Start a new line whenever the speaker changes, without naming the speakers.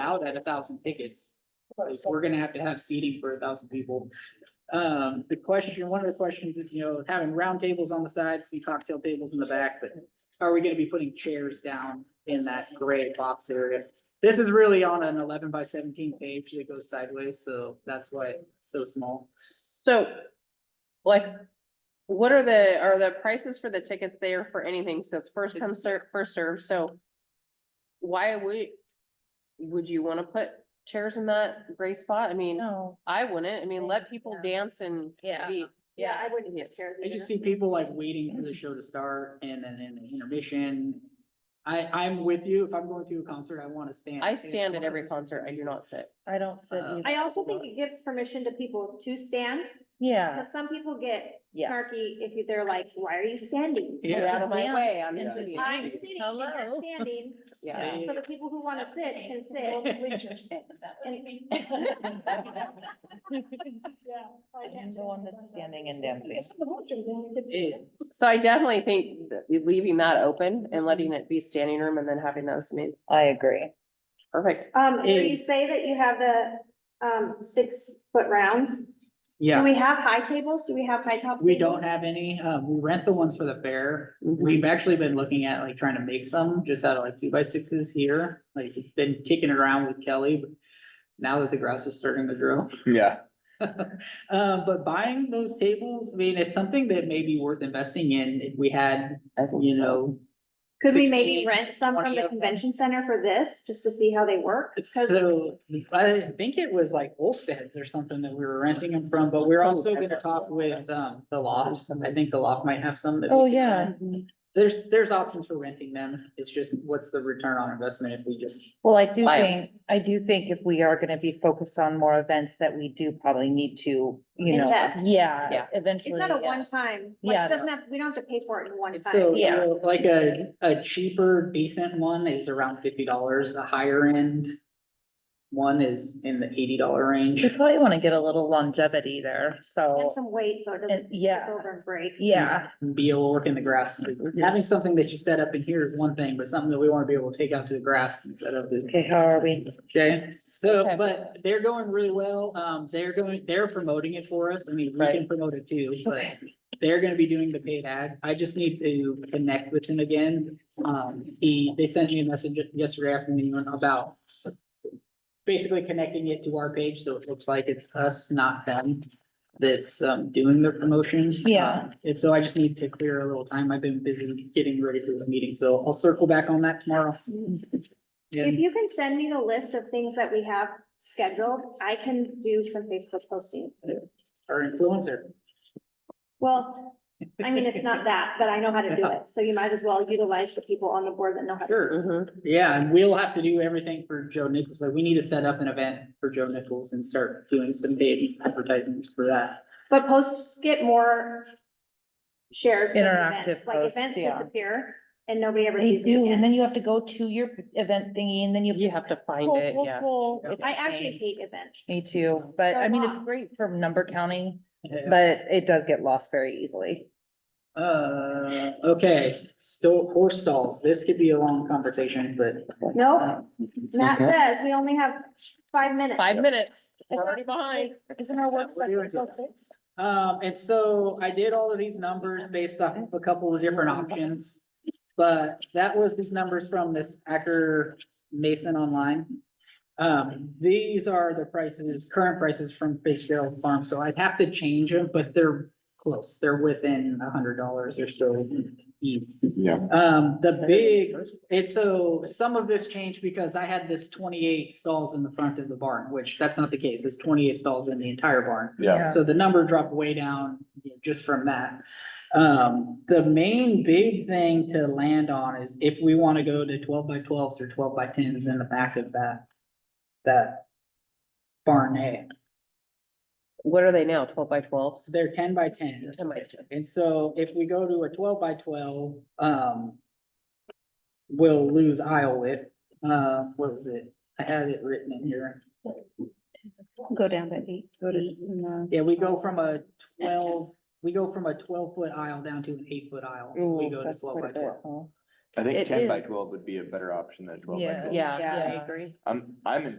out at a thousand tickets. Like, we're gonna have to have seating for a thousand people. Um, the question, one of the questions is, you know, having round tables on the side, see cocktail tables in the back, but are we gonna be putting chairs down in that gray box area? This is really on an eleven by seventeen page that goes sideways, so that's why it's so small.
So, like, what are the, are the prices for the tickets there for anything? So it's first come, ser- first served, so why would, would you wanna put chairs in that gray spot? I mean,
No.
I wouldn't. I mean, let people dance and
Yeah.
be.
Yeah, I
wouldn't get
I just see people like waiting for the show to start and then in the intermission. I, I'm with you. If I'm going to a concert, I wanna stand.
I stand at every concert. I do not sit.
I don't sit
Uh,
either.
I also think it gives permission to people to stand,
Uh,
Yeah,
because some people get
Yeah.
snarky if you- they're like, why are you standing?
Yeah.
Get out of my way. I'm
Yeah.
sitting.
I'm sitting and they're
Hello.
standing,
Yeah.
so the people who wanna sit can sit.
I'm the one that's standing and dancing.
It-
So I definitely think that leaving that open and letting it be standing room and then having those, I mean,
I agree.
perfect.
Um, where
Eh.
you say that you have the, um, six foot rounds, do
Yeah,
we have high tables? Do we have high top?
we don't
tables?
have any. Um, we rent the ones for the fair.
Mhm.
We've actually been looking at like trying to make some just out of like two by sixes here. Like it's been kicking around with Kelly. but Now that the grouse is starting to grow.
Yeah,
Uh, but buying those tables, I mean, it's something that may be worth investing in if we had,
I think
you
so.
know,
Could we
16,
maybe rent some from
20 of
the
them.
convention center for this, just to see how they work? 'Cause
So I think it was like Olsteads or something that we were renting them from, but we're
Oh,
also gonna talk with um the loft. I think the loft might have some that. we
Oh,
can
yeah.
rent. There's, there's options for renting them. It's just what's the return on investment if we just,
Well, I do
Why?
think, I do think if we are gonna be focused on more events that we do probably need to, you know,
Invest.
yeah,
Yeah.
eventually.
It's not a
yeah.
one-time, like,
Yeah.
it doesn't have, we don't have to pay for it in one
it's so,
time.
you
Yeah.
know, like a, a cheaper decent one is around fifty dollars, a higher end. One is in the eighty dollar range.
We probably wanna get a little longevity there,
And
so,
some weight, so
Oh. and
it doesn't tip
yeah,
over and break.
yeah,
Be able to work in the grass. Having something that you set up in here is one thing, but something that we wanna be able to take out to the grass instead of the
okay, how are we?
Okay, so,
Okay.
but they're going really well. Um, they're going, they're promoting it for us. I mean, we can
Right.
promote it too, but
Okay.
they're gonna be doing the paid ad. I just need to connect with him again. Um, he, they sent me a message yesterday afternoon about basically connecting it to our page, so it looks like it's us, not them, that's, um, doing the promotion.
Yeah.
Um, And so I just need to clear a little time. I've been busy getting ready for this meeting, so I'll circle back on that tomorrow.
If
And
you can send me the list of things that we have scheduled, I can do some Facebook posting.
our influencer.
Well, I mean, it's not that, but I know how to do it, so you might as well utilize the people on the board that know how to.
Sure,
Mhm.
yeah, and we'll have to do everything for Joe Nichols, like, we need to set up an event for Joe Nichols and start doing some paid advertising for that.
But posts get more shares. than
Interactive
events. Like
posts,
events
yeah.
disappear and nobody ever
They
sees it
do, and
again.
then you have to go to your event thingy and then you.
You have to find
Full,
it,
full,
yeah.
full. It's
I
a
actually
pain.
hate events.
Me too, but
So
I mean, it's
lost.
great for number counting,
Yeah.
but it does get lost very easily.
Uh, okay, sto- horse stalls, this could be a long conversation, but.
No,
uh,
Oh, Matt says we only have five minutes.
Five minutes. We're already behind.
Isn't our
we're
website
doing
until
it.
six?
Um, and so I did all of these numbers based off of a couple of different options. But that was these numbers from this Acker Mason online. Um, these are the prices, current prices from Fitzgerald Farm, so I'd have to change them, but they're close. They're within a hundred dollars or so each.
yeah.
Um, the big, it's so, some of this changed because I had this twenty-eight stalls in the front of the barn, which that's not the case. It's twenty-eight stalls in the entire barn.
Yeah,
So the number dropped way down you know, just from that. Um, the main big thing to land on is if we want to go to twelve by twelves or twelve by tens in the back of that, that barn hay.
What are they now? Twelve by twelves?
So they're ten by ten.
Ten by ten.
And so if we go to a twelve by twelve, um, we'll lose aisle width. Uh, what was it? I had it written in here.
Go down by eight.
Go to-
uh,
Yeah, we go from a twelve, we go from a twelve foot aisle down to an eight foot aisle. We
Ooh,
go to
that's
twelve
quite a
by
bit,
twelve.
huh?
I
It
think ten by
is.
twelve would be a better option than twelve by
Yeah.
twelve.
Yeah,
Yeah.
yeah, I agree.
I'm, I'm in